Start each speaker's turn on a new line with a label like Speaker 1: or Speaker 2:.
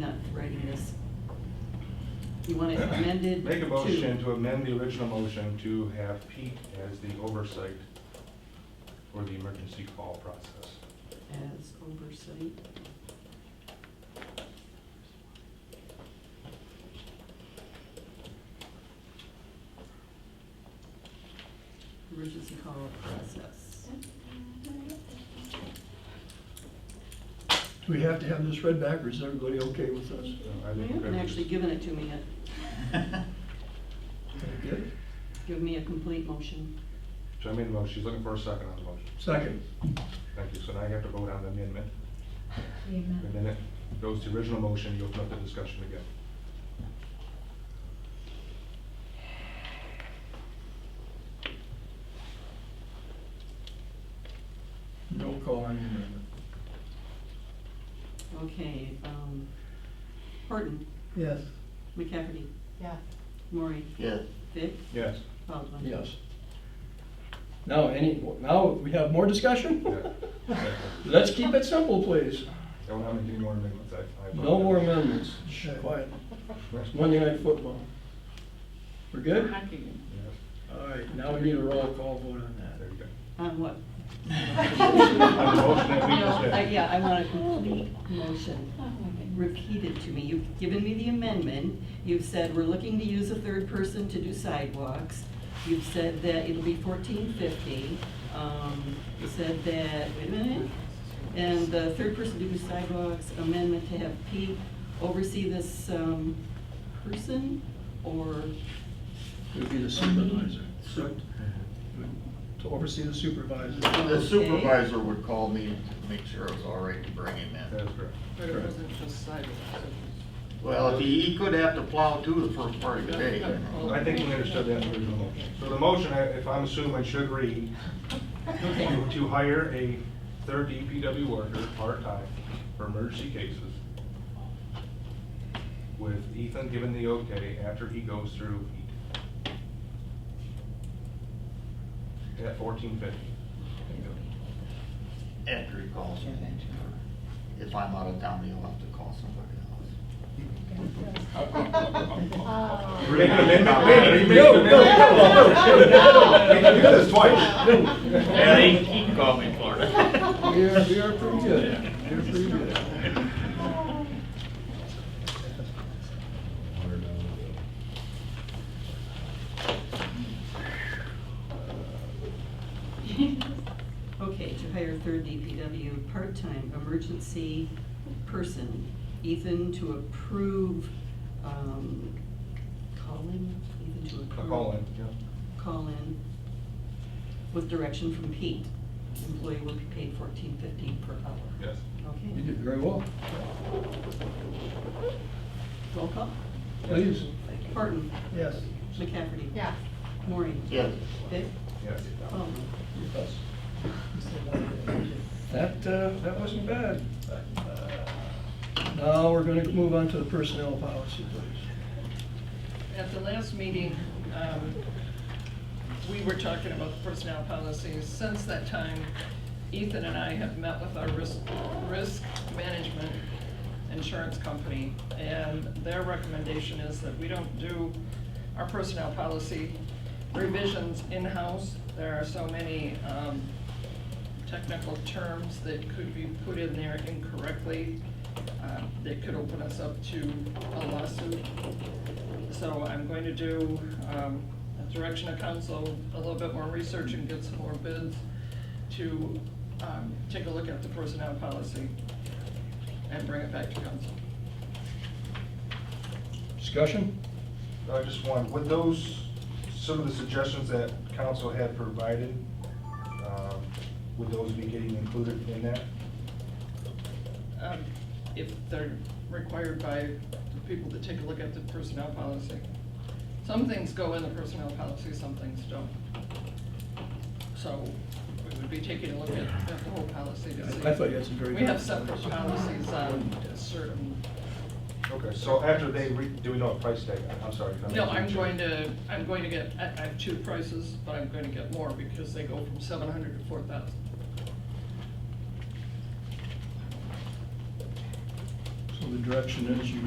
Speaker 1: not writing this. You want it amended to.
Speaker 2: Make a motion to amend the original motion to have Pete as the oversight for the emergency call process.
Speaker 1: As oversight. Emergency call process.
Speaker 3: Do we have to have this read back, or is everybody okay with us?
Speaker 2: I
Speaker 1: You
Speaker 2: think
Speaker 1: haven't
Speaker 2: that was-
Speaker 1: actually given it to me yet.
Speaker 3: Very good.
Speaker 1: Give me a complete motion.
Speaker 2: So I made a motion, she's looking for a second on the motion.
Speaker 3: Second,
Speaker 2: Thank you, so now I have to vote on the amendment,
Speaker 4: The
Speaker 2: and
Speaker 4: amendment.
Speaker 2: then it goes to the original motion, you open up the discussion again.
Speaker 3: no call on the amendment.
Speaker 1: Okay, um, Horton,
Speaker 3: Yes.
Speaker 1: McCafferty,
Speaker 4: Yeah.
Speaker 1: Maury,
Speaker 5: Yes.
Speaker 1: Vic,
Speaker 2: Yes,
Speaker 1: Baldwin.
Speaker 3: Yes. Now, any, now we have more discussion?
Speaker 2: yeah. Exactly.
Speaker 3: Let's keep it simple, please.
Speaker 2: I don't have any more amendments, I. I-
Speaker 3: No more amendments. Shh, Quiet. It's Monday night football. We're good?
Speaker 2: Yes,
Speaker 3: All right, now we need a roll call vote on
Speaker 2: there you go.
Speaker 1: On what?
Speaker 2: On the motion that we just
Speaker 1: No, I-
Speaker 2: had.
Speaker 1: Yeah, I want a complete motion repeated to me. You've given me the amendment, you've said we're looking to use a third person to do sidewalks, you've said that it'll be fourteen fifty, um, you said that, wait a minute, and the third person to do sidewalks amendment to have Pete oversee this, um, person, or,
Speaker 3: It would be the supervisor. correct? To oversee the supervisor.
Speaker 5: The supervisor would call me to make sure it was all right to bring him
Speaker 2: That
Speaker 5: in.
Speaker 2: is correct.
Speaker 6: But it wasn't just sidewalks.
Speaker 5: Well, if he, he could have to plow too the first part of the day. you know.
Speaker 2: I think we understood that in the original motion. So the motion, I- if I'm assuming, should read, to to hire a third DPW worker, part-time, for emergency cases, with Ethan given the okay after he goes through E heat. At fourteen fifty.
Speaker 5: After he calls me, if I'm out of town, he'll have to call somebody else.
Speaker 2: We're making an amendment, wait a minute, you made
Speaker 3: No,
Speaker 2: an
Speaker 3: no,
Speaker 2: amendment.
Speaker 3: no,
Speaker 2: You can do this
Speaker 3: Yeah,
Speaker 2: twice.
Speaker 3: he-
Speaker 5: can call me Florida.
Speaker 3: We are, we are pretty good. We're pretty good.
Speaker 1: okay, to hire third DPW part-time emergency person, Ethan to approve, um, calling, Ethan to approve.
Speaker 2: Call in, yeah.
Speaker 1: call in with direction from Pete. Employee will be paid fourteen fifteen per hour.
Speaker 2: Yes.
Speaker 3: You
Speaker 1: Okay,
Speaker 3: did very well.
Speaker 1: roll call.
Speaker 3: Please.
Speaker 1: Horton,
Speaker 3: Yes.
Speaker 1: McCafferty.
Speaker 4: Yeah.
Speaker 1: Maureen.
Speaker 5: Yes.
Speaker 1: Dick.
Speaker 2: Yes.
Speaker 1: Baldwin.
Speaker 3: Yes. That, uh, that wasn't bad. Now, we're gonna move on to the personnel policy, please.
Speaker 6: At the last meeting, um, we were talking about the personnel policies. Since that time, Ethan and I have met with our risk, risk management insurance company, and their recommendation is that we don't do our personnel policy revisions in-house. There are so many um, technical terms that could be put in there incorrectly, uh, that could open us up to a lawsuit. So I'm going to do, um, a direction of council, a little bit more research and get some more bids to, um, take a look at the personnel policy and bring it back to council.
Speaker 3: Discussion?
Speaker 2: I just want, with those, some of the suggestions that council had provided, um, would those be getting included in that?
Speaker 6: Um, if they're required by the people to take a look at the personnel policy. Some things go in the personnel policy, some things don't. So we would be taking a look at, at the whole policy to see.
Speaker 3: I thought you had some very
Speaker 6: We
Speaker 3: good
Speaker 6: have separate
Speaker 3: policies.
Speaker 6: policies on certain
Speaker 2: Okay, so after they, re- do we know a price tag? I'm sorry. if I made
Speaker 6: No,
Speaker 2: you
Speaker 6: I'm
Speaker 2: change.
Speaker 6: going to, I'm going to get, I I have two prices, but I'm going to get more because they go from seven hundred to four thousand.
Speaker 3: So the direction is you